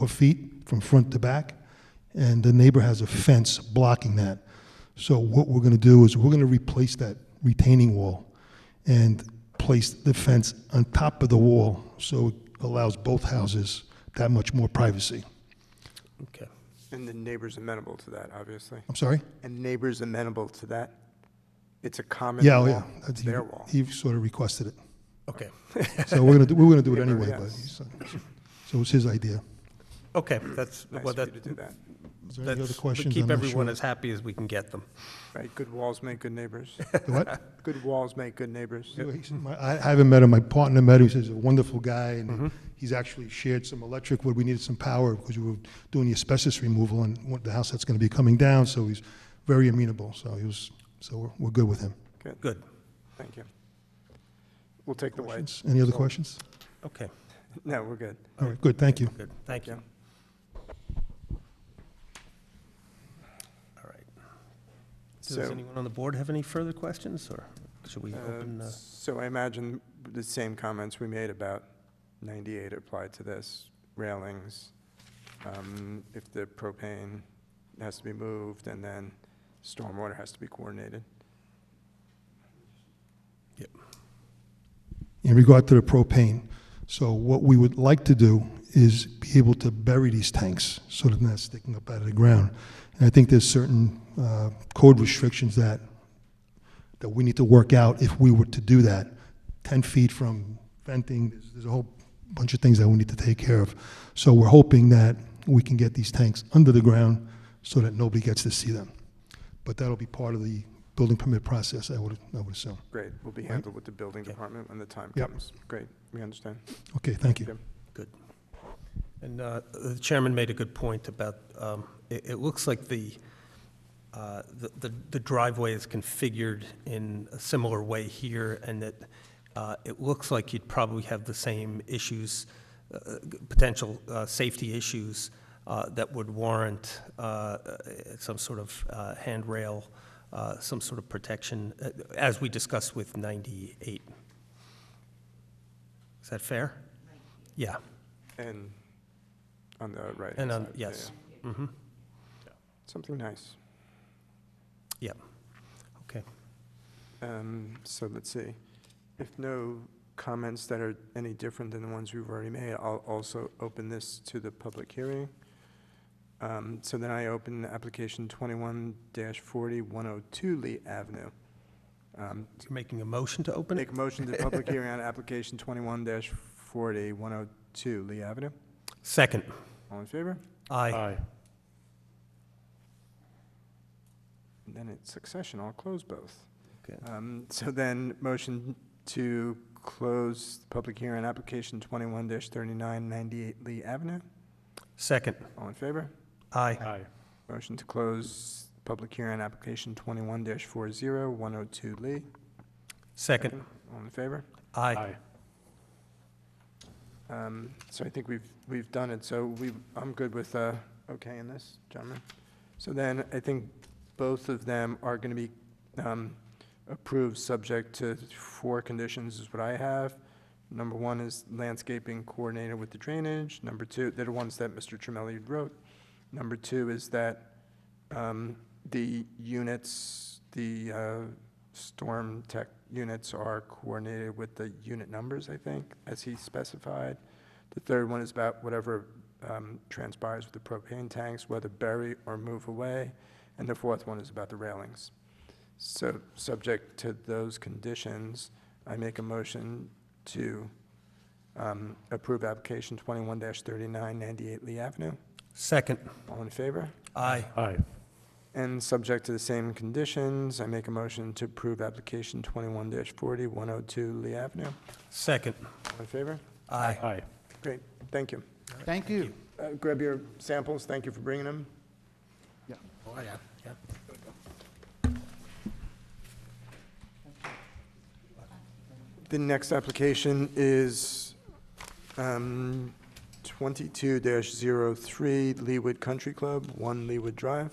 or feet from front to back, and the neighbor has a fence blocking that. So what we're gonna do is, we're gonna replace that retaining wall and place the fence on top of the wall, so it allows both houses that much more privacy. Okay. And the neighbor's amenable to that, obviously. I'm sorry? And neighbor's amenable to that? It's a common Yeah, oh, wall. yeah. That's- It's he- their wall. He sort of requested it. Okay. So we're gonna, do- we were gonna do it Neighbor, anyway, but, yes. he's- so it was his idea. Okay, that's, Nice well, of that, you to do that. Is there any other that's, questions? keep I'm not everyone sure. as happy as we can get them. Right, good walls make good neighbors. The What? Good walls make good neighbors. He said, "My- I haven't met him, my partner met him, he says he's a wonderful guy, and he's actually shared some electric, wood. we needed some power, because we were doing the asbestos removal on one- the house that's gonna be coming down, so he's very amenable, so he was, so we're, we're good with him. Good, Good, thank you. We'll take the white. Questions? Any other So- questions? okay, No, we're good. All right, good, thank you. good, thank you. Yeah. All right. Does So- anyone on the board have any further questions, or should we open? Uh, uh, So I imagine the same comments we made about 98 apply to this, railings, um, if the propane has to be moved, and then stormwater has to be coordinated. in regard to the propane. So what we would like to do is be able to bury these tanks so that they're not sticking up out of the ground. And I think there's certain uh, code restrictions that, that we need to work out if we were to do that. 10 feet from venting, there's- there's a whole bunch of things that we need to take care of. So we're hoping that we can get these tanks under the ground so that nobody gets to see them. But that'll be part of the building permit process, I would, I would assume. Great, will be handled with the building department when the time Yep. comes. Great, we understand. Okay, thank you. Yep. Good. And uh, the chairman made a good point about, um, it it looks like the uh, the- the the driveway is configured in a similar way here, and that uh, it looks like you'd probably have the same issues, uh, uh, g- potential uh, safety issues uh, that would warrant uh, uh, some sort of uh, handrail, uh, some sort of protection, uh, as we discussed with 98. Is that fair? Yeah. And on the right. And, um, yes, mhm, Something nice. yep, okay. Um, So let's see. If no comments that are any different than the ones we've already made, I'll also open this to the public hearing. Um, So then I open application 21-40-102 Lee Avenue. Um, You're making a motion to open it? Make a motion to public hearing on application 21-40-102 Lee Avenue. Second. All in favor? Aye. And Then it's succession, I'll close both. Okay. Um, So then, motion to close the public hearing, application 21-3998 Lee Avenue. Second. All in favor? Aye. Aye. Motion to close public hearing, application 21-40102 Lee. Second. All in favor? Aye. Um, So I think we've, we've done it, so we, I'm good with, uh, okay in this, gentlemen. So then, I think both of them are going to be um, approved, subject to four conditions is what I have. Number one is landscaping coordinated with the drainage. Number two, they're the ones that Mr. Tramelli wrote. Number two is that um, the units, the uh, storm tech units are coordinated with the unit numbers, I think, as he specified. The third one is about whatever um, transpires with the propane tanks, whether bury or move away. And the fourth one is about the railings. So, subject to those conditions, I make a motion to um, approve application 21-3998 Lee Avenue. Second. All in favor? Aye. Aye. And subject to the same conditions, I make a motion to approve application 21-40-102 Lee Avenue. Second. All in favor? Aye. Aye. Great, thank you. Thank you. Uh, Grab your samples, thank you for bringing them. Oh, yeah. yeah. The next application is um, 22-03 Leewood Country Club, 1 Leewood Drive.